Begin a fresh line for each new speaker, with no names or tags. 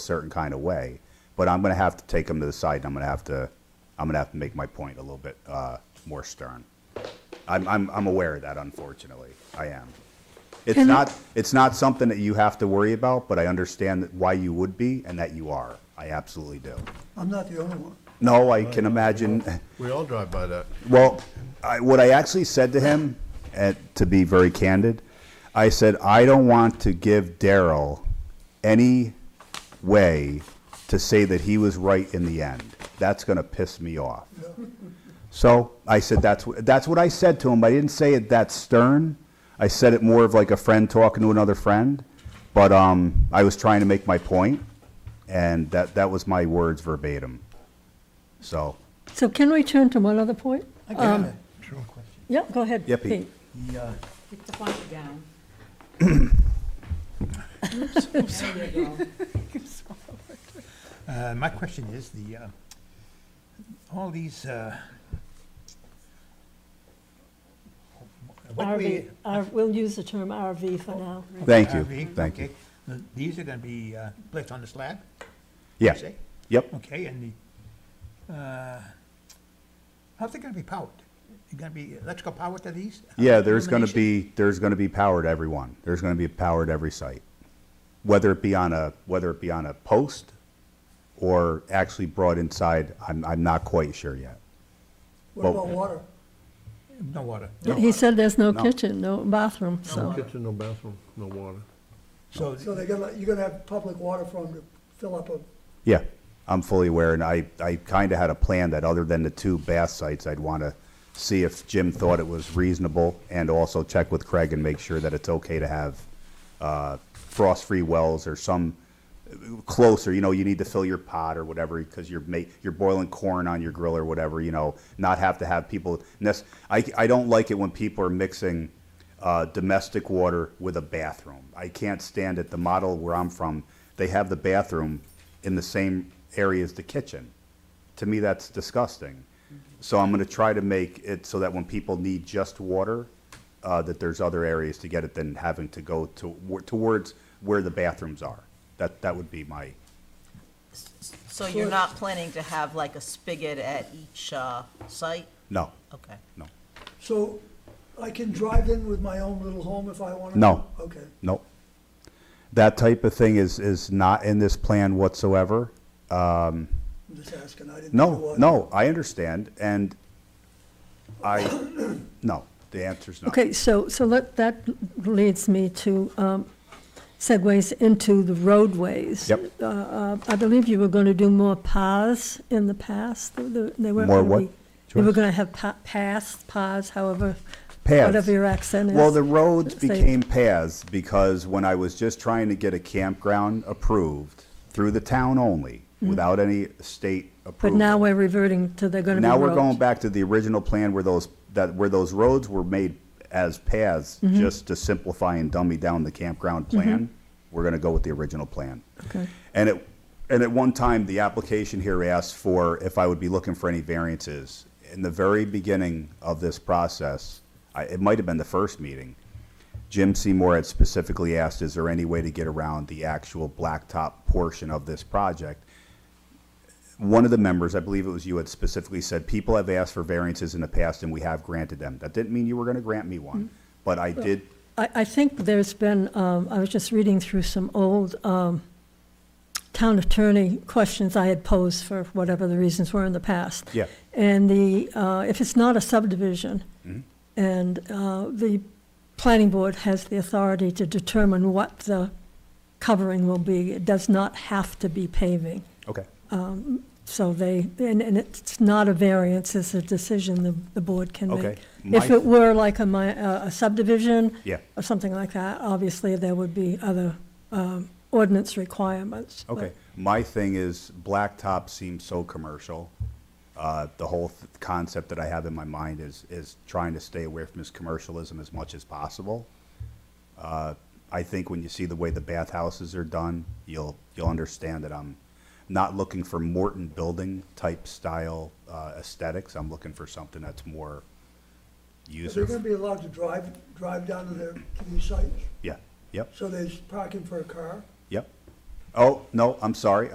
certain kind of way. But I'm going to have to take them to the side, and I'm going to have to, I'm going to have to make my point a little bit uh, more stern. I'm, I'm, I'm aware of that, unfortunately. I am. It's
Can I-
not, it's not something that you have to worry about, but I understand that why you would be and that you are. I absolutely do.
I'm not the only one.
No, I can imagine.
We all drive by that.
Well, I, what I actually said to him, and to be very candid, I said I don't want to give Daryl any way to say that he was right in the end. That's going to piss me off. So I said that's wh- that's what I said to him. I didn't say it that stern. I said it more of like a friend talking to another friend. But um, I was trying to make my point, and that that was my words verbatim. So
So can we turn to one other point?
I got it.
Yeah, go ahead.
Yeah, Pete.
uh,
Yeah.
Keep the flag down. There you go.
Uh, My question is, the, uh, all these, uh, what do we...
RV, R- we'll use the term RV for now.
Thank you.
RV,
Thank you.
okay. Now, These are going to be uh, placed on the slab?
Yeah.
say?
Yep.
Okay, and the, uh, how's it going to be powered? Going to be electrical power to these?
Yeah, there's going to
Illumination?
be, there's going to be power to everyone. There's going to be power to every site. Whether it be on a, whether it be on a post or actually brought inside, I'm, I'm not quite sure yet.
What about water?
No water.
He said there's no
No.
kitchen, no bathroom,
No
so,
kitchen, no bathroom, no water.
So,
So they're gonna, you're gonna have public water for them to fill up a,
Yeah, I'm fully aware, and I, I kind of had a plan that other than the two bath sites, I'd want to see if Jim thought it was reasonable, and also check with Craig and make sure that it's okay to have uh, frost-free wells or some closer, you know, you need to fill your pot or whatever, because you're ma, you're boiling corn on your grill or whatever, you know, not have to have people, nec- I, I don't like it when people are mixing uh, domestic water with a bathroom. I can't stand it. The model where I'm from, they have the bathroom in the same area as the kitchen. To me, that's disgusting. So I'm going to try to make it so that when people need just water, uh, that there's other areas to get it than having to go to, towards where the bathrooms are. That, that would be my,
So you're not planning to have like a spigot at each uh, site?
no,
Okay.
no,
so I can drive in with my own little home if I wanna?
No.
Okay.
no. That type of thing is, is not in this plan whatsoever.
I'm just asking. I didn't. know
No,
what-
no, I understand, and I, no, the answer's no.
okay, so, so let, that leads me to, um, segues into the roadways.
Yep.
Uh, uh, I believe you were going to do more paths in the past, The- the- they were.
More what,
You were
Joyce?
going to have pa- paths, paths, however,
Paths.
whatever your accent is.
Well, the roads
Say-
became paths because when I was just trying to get a campground approved through the town only, without any state
Mm-hmm. But
approval.
now we're reverting to they're going to be
Now we're
roads.
going back to the original plan where those, that, where those roads were made as paths,
Mm-hmm.
just to simplify and dummy down the campground plan. We're gonna go with the original plan.
Okay.
And it, and at one time, the application here asked for if I would be looking for any variances. In the very beginning of this process, I, it might have been the first meeting, Jim Seymour had specifically asked, is there any way to get around the actual blacktop portion of this project? one of the members, I believe it was you, had specifically said, people have asked for variances in the past and we have granted them. That didn't mean you were gonna grant me one, but I did,
I, I think there's been, um, I was just reading through some old, um, town attorney questions I had posed for whatever the reasons were in the past.
Yeah.
And the, uh, if it's not a subdivision, and, uh, the planning board has the authority to determine what the covering will be. It does not have to be paving.
okay,
So they, and, and it's not a variance, it's a decision the, the board can
Okay.
make.
My-
If it were like a mi, a a subdivision.
Yeah.
Or something like that, obviously there would be other, um, ordinance requirements. but-
okay. My thing is, blacktop seems so commercial. Uh, the whole th- concept that I have in my mind is, is trying to stay away from this commercialism as much as possible. Uh, I think when you see the way the bathhouses are done, you'll, you'll understand that I'm not looking for Morton building type style uh, aesthetics. I'm looking for something that's more
If They're gonna
user.
be allowed to drive, drive down to their, to these sites,
Yeah, yep,
so there's parking for a car.
yep. Oh, no, I'm sorry,